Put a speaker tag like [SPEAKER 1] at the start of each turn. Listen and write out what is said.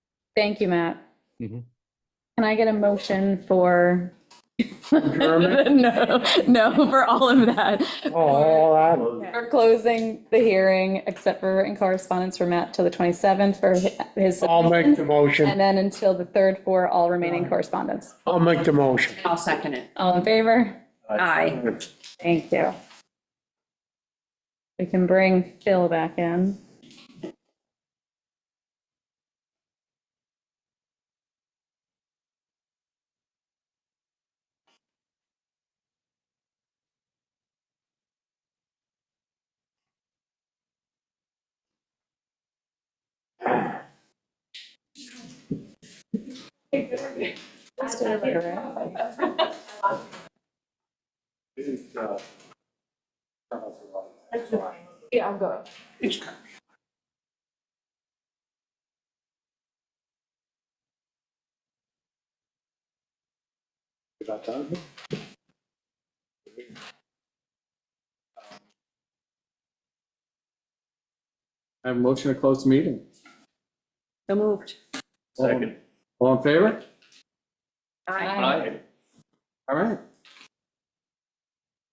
[SPEAKER 1] Thank you, Matt.
[SPEAKER 2] Mhm.
[SPEAKER 1] Can I get a motion for?
[SPEAKER 3] Adjournment?
[SPEAKER 1] No, no, for all of that.
[SPEAKER 3] All Oh, that,
[SPEAKER 1] We're closing the hearing except for in correspondence for Matt till the 27th for his.
[SPEAKER 3] I'll make the
[SPEAKER 1] And
[SPEAKER 3] motion.
[SPEAKER 1] then until the 3rd for all remaining correspondence.
[SPEAKER 3] I'll make the motion.
[SPEAKER 4] I'll second it.
[SPEAKER 1] All in favor?
[SPEAKER 4] Aye.
[SPEAKER 1] Thank you. We can bring Phil back in.
[SPEAKER 5] Yeah, I'm going.
[SPEAKER 3] About that?
[SPEAKER 2] I have a motion to close the meeting.
[SPEAKER 4] So moved.
[SPEAKER 2] Second. All in favor?
[SPEAKER 1] Aye.
[SPEAKER 2] All right.